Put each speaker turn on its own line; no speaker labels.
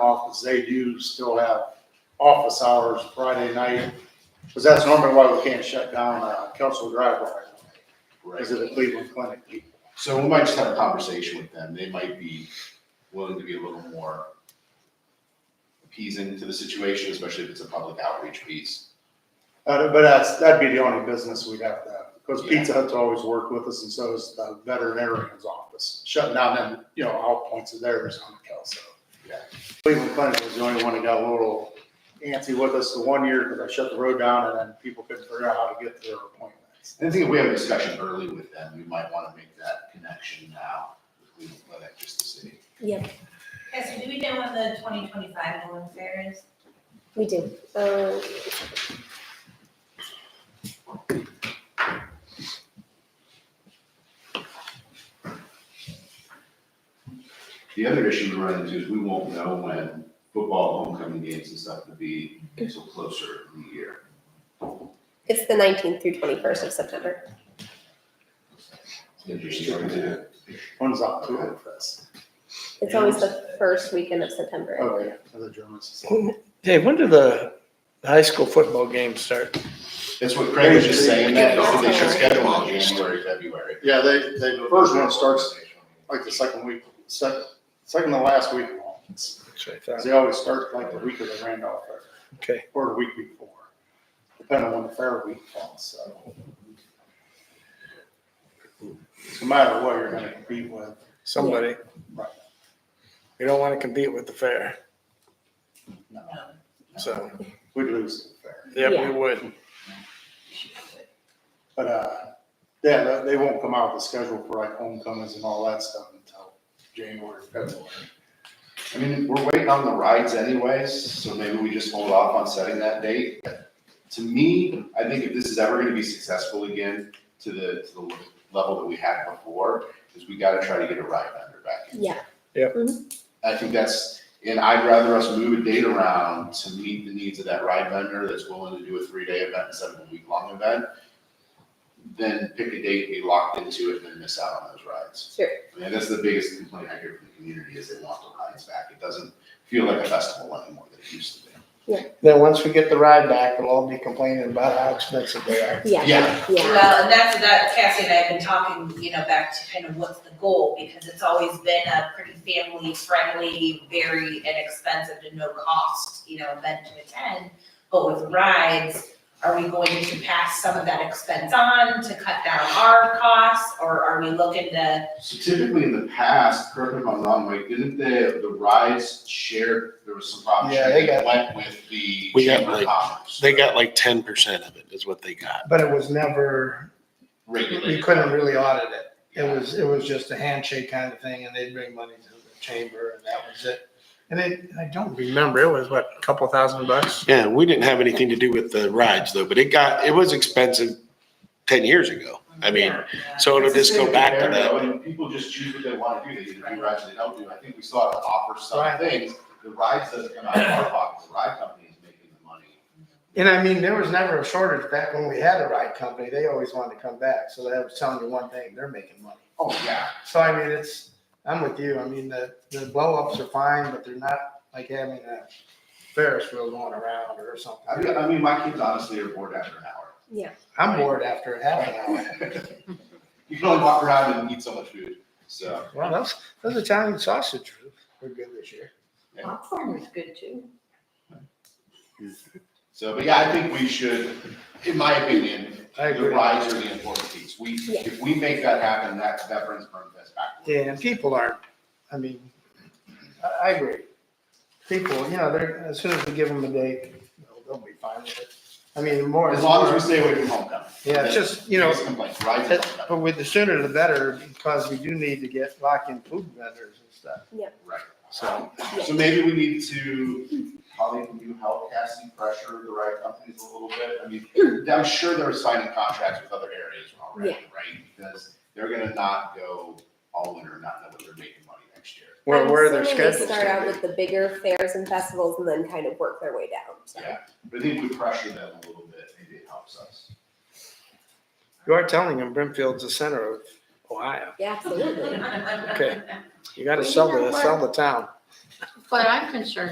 office, they do still have office hours Friday night. Because that's normally why we can't shut down, uh, Kelso Drive right now,
Right.
because of the Cleveland Clinic people.
So we might just have a conversation with them. They might be willing to be a little more appeasing to the situation, especially if it's a public outreach piece.
Uh, but that's, that'd be the only business we'd have to have, because Pizza Hut's always worked with us, and so is the veterinarian's office. Shutting down them, you know, all points of theirs on Kelso.
Yeah.
Cleveland Clinic was the only one that got a little antsy with us the one year, because I shut the road down, and then people couldn't figure out how to get to their appointments.
And I think if we have a discussion early with them, we might want to make that connection now with Cleveland Clinic, just to see.
Yes, do we know when the twenty twenty-five Nolan Fair is?
We do. Uh,
The other issue we run into is we won't know when football homecoming games and stuff will be until closer in the year.
it's the 19th through 21st of September.
Interesting.
When's Oktoberfest?
It's always the first weekend of September.
Oh, yeah, for the Germans. They
Dave, when do the high school football games start?
That's what Craig was just saying, that they should
Yeah.
schedule in January, February.
Yeah, they, they, the first one starts like the second week, second, second to last week. of August.
That's what I
'Cause
thought.
They always start like the week of the Randolph Fair.
Okay.
Or the week before, depending on when the fair week falls, so. No matter what you're gonna compete with,
Somebody.
Right.
We don't want to compete with the fair,
no,
so,
we'd lose the fair.
yeah,
Yeah.
we would.
But, uh, yeah, they- they won't come out with a schedule for like homecomings and all that stuff until January, February.
I mean, we're waiting on the rides anyways, so maybe we just hold off on setting that date. To me, I think if this is ever gonna be successful again to the, to the level that we had before, is we gotta try to get a ride vendor back in.
Yeah.
I think that's, and I'd rather us move a date around to meet the needs of that ride vendor that's willing to do a three-day event instead of a week-long event than pick a date, be locked into it, and then miss out on those rides.
Sure.
I mean, that's the biggest complaint I hear from the community is they want the rides back. It doesn't feel like a festival anymore that it used to be.
Then once we get the ride back, we'll all be complaining about how expensive they are.
Yeah.
Yeah.
Yeah.
Well, and that's, that Cassie and I have been talking, you know, back to kind of what's the goal, because it's always been a pretty family friendly, very inexpensive to no cost, you know, event to attend. But with rides, are we going to pass some of that expense on to cut down our costs, or are we looking to,
So typically in the past, correct me if I'm wrong, Mike, didn't the, the rides shared, there was some problem
Yeah,
sharing
they
that went with the
We got
Chamber of
like-
Commerce?
They got like ten percent of it is what they got.
But it was never, we
Regulated.
couldn't really audit it. It was, it was just a handshake kind of thing and they'd bring money to the chamber and that was it. And it, I don't remember, it was what, a couple thousand bucks?
Yeah, we didn't have anything to do with the rides though, but it got, it was expensive ten years ago. I mean, so it'll just go back to that.
And people just choose what they want to do. They either do rides or they don't do. I think we still have to offer some
Right.
things. The rides doesn't come out of our pocket. The ride company is making the money.
And I mean, there was never a shortage back when we had a ride company. They always wanted to come back. So that was telling you one thing, they're making money.
Oh, yeah.
So I mean, it's, I'm with you. I mean, the, the blow ups are fine, but they're not like having a Ferris wheel going around or
I
something.
mean, I mean, my kids honestly are bored after an hour.
I'm bored after half an hour.
You can only walk around and eat so much food, so.
Well, those, those Italian sausage were good this year.
Popcorn was good too.
So, but yeah, I think we should, in my opinion,
I
the
agree.
rides are the important piece. We,
Yeah.
if we make that happen, that's Veterans Burn Fest back.
Yeah, and people aren't, I mean, I, I agree. People, you know, they're, as soon as we give them a date, they'll, they'll be fine with it. I mean, the more.
As long as we stay away from homecoming.
Yeah, it's just, you know,
Biggest complaint, rides and
That-
homecoming.
But with the sooner the better, because we do need to get lock-in food vendors and stuff.
Right.
So,
So maybe we need to, probably can you help Cassie pressure the right companies a little bit? I mean, I'm sure they're signing contracts with other areas already, right? Because they're gonna not go all winter, not know what they're making money next year.
where,
I'm
where their
assuming
schedules
They start out
gonna
with the bigger fairs and festivals and then kind of work their way down. So.
Yeah, but I think we pressure them a little bit, maybe it helps us.
be. You are telling them Brimfield's the center of Ohio.
Yeah, absolutely.
Okay. You gotta sell the, sell the town.
What I'm concerned